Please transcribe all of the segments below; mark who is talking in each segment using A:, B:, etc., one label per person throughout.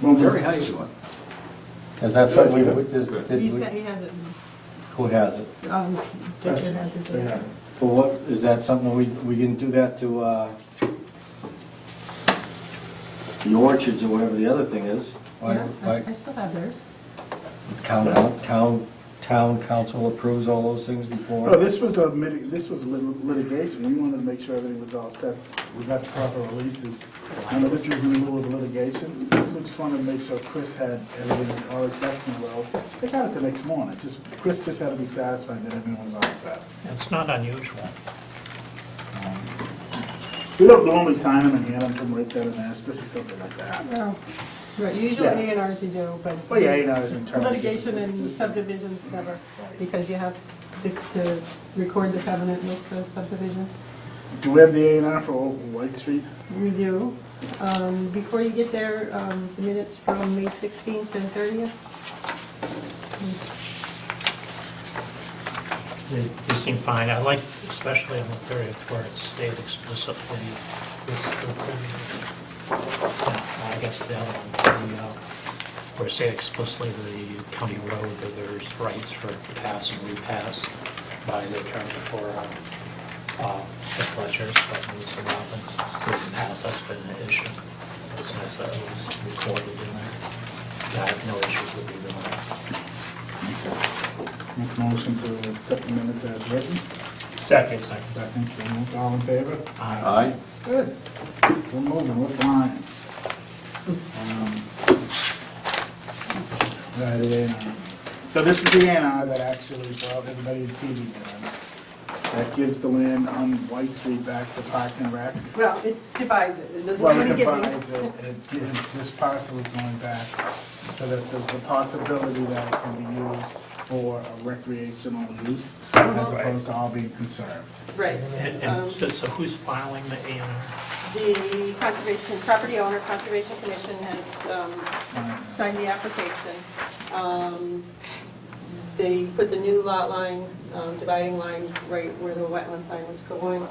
A: Terry, how you doing?
B: Is that something we, we just, did
C: He's
B: we,
C: got, he has it.
B: who has it?
C: Um, did you have this?
D: Yeah.
B: Well, what, is that something we, we didn't do that to, uh, the orchards or whatever the other thing is? Why-
C: Yeah,
B: why-
C: I- I still have theirs.
B: Town, town, town council approves all those things
D: No,
B: before?
D: this was a, miti- this was lit- litigation, we wanted to make sure everything was all set, we got the proper releases. I know this was in the middle of litigation, so we just wanted to make sure Chris had everything, all his ducks in a row. They got it the next morning, just, Chris just had to be satisfied that everything was all set.
E: It's not unusual.
D: We don't normally sign them and hand them to them right then and there, especially something like that.
C: Well, Right, usually
D: Yeah.
C: A and Rs you do, but.
D: Well, yeah, you know, it's in terms of-
C: Litigation and subdivisions never, because you have to- to record the covenant with the subdivision.
D: Do we have the A and R for Old White Street?
C: We do. Um, Before you get there, um, the minutes from May 16th and 30th.
E: They they seem fine. I like especially on the 30th where it stayed explicitly. this- the 30th. Yeah, I guess the other one, the, uh, where it stayed explicitly the county road, that there's rights for pass and repass by the attorney for uh, uh, the Fletchers, but Lewis and Robbins. The pass, that's been an issue. It's nice that it was recorded in there. Yeah, I have no issues with either one.
D: Make a motion to accept the minutes as written,
E: Second. Second.
D: second, so moved. all in favor?
E: Aye.
B: Aye.
D: Good. We're moving, we're flying. Um, Right, the A&R. So this is the A and R that actually brought everybody to TV dinner. That gives the land on White Street back to Park and Rec.
C: Well, it divides it. It doesn't
D: Well,
C: really
D: it
C: give you.
D: divides it, it, gives- this parcel is going back, so that there's the possibility that it can be used for a recreational use, as opposed to all being conserved.
C: Right.
E: And,
C: Um,
E: and so so who's filing the A and R?
C: The Conservation, Property Owner Conservation Commission has um, signed the application. Um, They put the new lot line, um, dividing line, right where the wetland sign was going.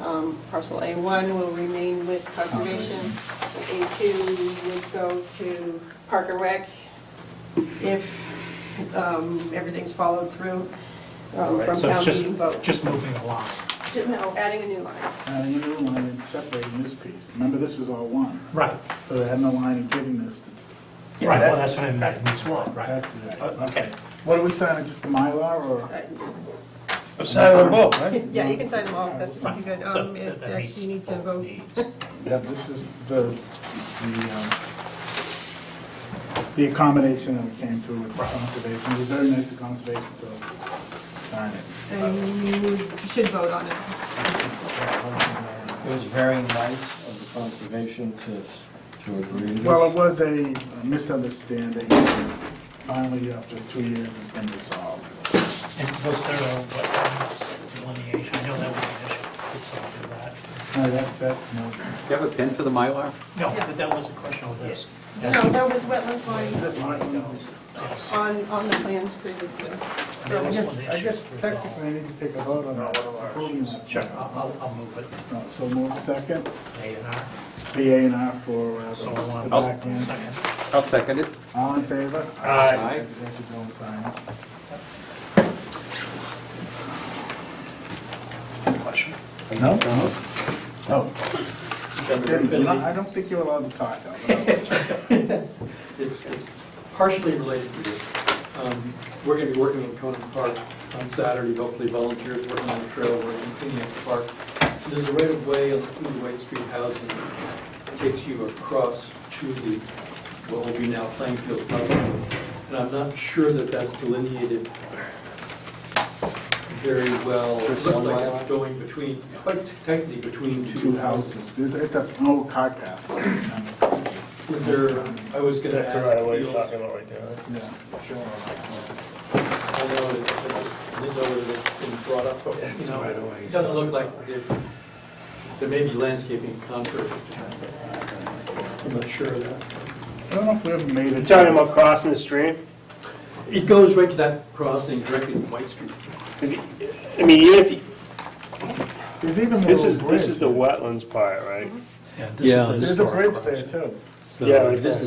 C: Um, Parcel A1 will remain with Conservation. A2 would go to Park and Rec if um, everything's followed through um, from
E: So
C: town
E: it's
C: meeting
E: just,
C: vote.
E: just moving the line.
C: No, adding a new line.
D: And you know, when they separating this piece, remember this was all one.
E: Right,
D: So they had no line in giving this. to-
E: Yeah, Right, well, that's what I meant.
D: That's the swamp, right? That's it.
E: Oh, okay.
D: What are we signing, just the Mylar or?
C: Uh,
F: I'm signing them both, right?
C: Yeah, you can sign them all, that's pretty good.
E: so
C: Um,
E: that
C: it-
E: that meets
C: Actually, you need to
E: both
C: vote.
E: needs.
D: Yeah, this is the, the, um, the accommodation that we came through with conservation. It was very nice of conservation to sign it.
C: And you should vote on it.
B: It was very nice of the conservation to, to agree to this.
D: Well, it was a misunderstanding. Finally, after two years, it's been resolved.
E: And was there a wetlands delineation? I know that was an issue. It's all for that.
D: No, that's, that's Morgan's.
A: Do you have a pen for the Mylar?
E: No, but that was a question of this.
C: No, that was wetlands lines
D: Morgan's?
E: Yes.
C: on, on the plans previously.
E: That
D: I
E: was
D: guess-
E: one of the
D: I guess
E: issues resolved.
D: technically I need to take a vote on that. Approving that.
E: Sure, I'll, I'll- I'll move it.
D: Uh, So move second,
E: A and R.
D: the A and R for uh,
E: So I
D: the
E: want.
D: back end.
E: Second.
A: I'll second it.
D: All in favor?
E: Aye.
A: Aye.
D: You have to go and sign it.
E: Question.
D: No? Oh. You're not- I don't think you're allowed to talk. though.
G: It's it's partially related to this. Um, We're going to be working in Conan Park on Saturday, hopefully volunteers working on the trail, we're cleaning up the park. There's a right-of-way on through the White Street House and takes you across to the, what will be now Plainfield Hospital. And I'm not sure that that's delineated very well. It looks like it's going between, quite tightly between
D: Two houses, This- it's a- oh, an old cart path.
G: Is there, I was going to ask.
F: That's the right of way he's
G: Fields-
F: talking about right there, right?
D: Yeah.
G: I know it, I didn't know whether it's been brought up, but, you know, it doesn't look like there, there may be landscaping contour. I'm not sure of that.
D: I don't know if we ever made it.
F: You're talking about crossing the stream?
G: It goes right to that crossing directly to White Street.
F: Because, I mean, even if, you-
D: There's even a little bridge.
F: this is, this is the wetlands part, right?
E: Yeah. this is
A: Yeah.
E: a
D: There's a
E: historic
D: bridge there too.
F: Yeah, like that.